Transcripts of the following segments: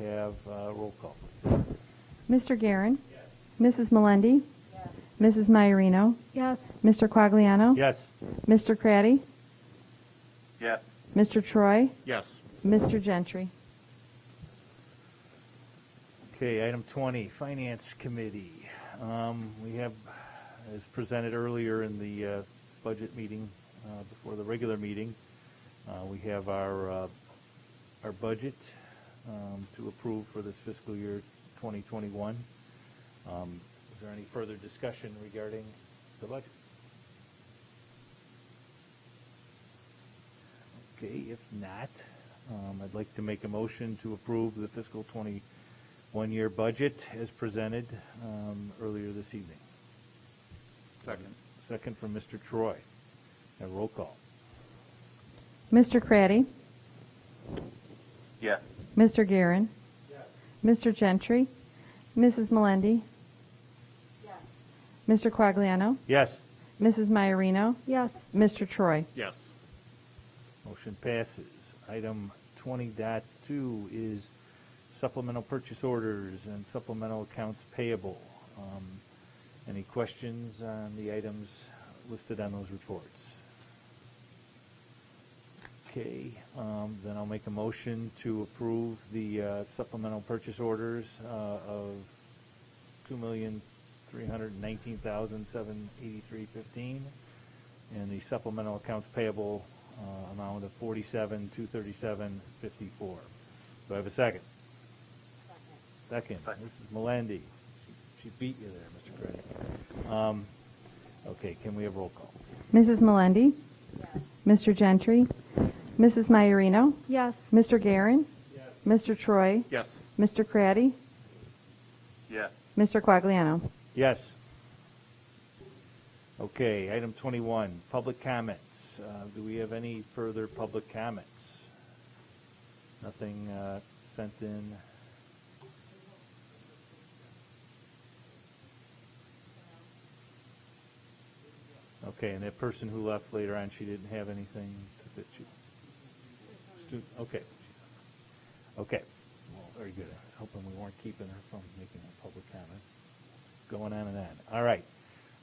Have uh, roll call, please. Mr. Garin, Mrs. Melendi? Mrs. Maiorino? Yes. Mr. Quagliano? Yes. Mr. Craddy? Yes. Mr. Troy? Yes. Mr. Gentry? Okay, item 20, Finance Committee. Um, We have, as presented earlier in the uh, budget meeting, uh, before the regular meeting, uh, we have our, uh, our budget um, to approve for this fiscal year 2021. Um, Is there any further discussion regarding the budget? Okay, if not, um, I'd like to make a motion to approve the fiscal 21 year budget as presented um, earlier this evening. Second. Second from Mr. Troy. A roll call. Mr. Craddy? Yes. Mr. Garin, Mr. Gentry? Mrs. Melendi? Mr. Quagliano? Yes, Mrs. Maiorino? Yes. Mr. Troy? Yes. motion passes. Item 20.2 is supplemental purchase orders and supplemental accounts payable. Um, Any questions on the items listed on those reports? Okay, um, then I'll make a motion to approve the uh, supplemental purchase orders uh, of two million, three hundred and nineteen thousand, seven eighty-three fifteen, and the supplemental accounts payable uh, amount of forty-seven, two thirty-seven, fifty-four. Do I have a second? Second, Second. Mrs. Melendi. She- She beat you there, Mr. Craddock. Um, Okay, can we have roll call? Mrs. Melendi? Mr. Gentry? Mrs. Maiorino? Yes. Mr. Garin, Mr. Troy? Yes. Mr. Craddy? Yes. Mr. Quagliano? Yes. Okay, item 21, public comments. Uh, Do we have any further public comments? Nothing uh, sent in? Okay, and that person who left later on, she didn't have anything that she, stu- okay. Okay, well, very good. I was hoping we weren't keeping her from making a public comment going on and on. All right.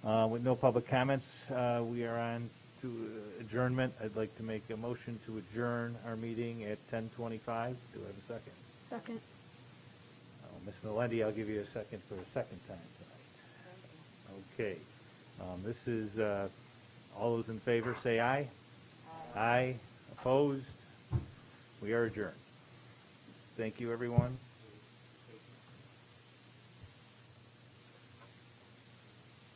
Uh, With no public comments, uh, we are on to adjournment. I'd like to make a motion to adjourn our meeting at 10:25. Do I have a second? Second. Oh, Ms. Melendi, I'll give you a second for a second time tonight. Okay. Um, This is, uh, all those in favor, say aye. Aye. Opposed? We are adjourned. Thank you, everyone.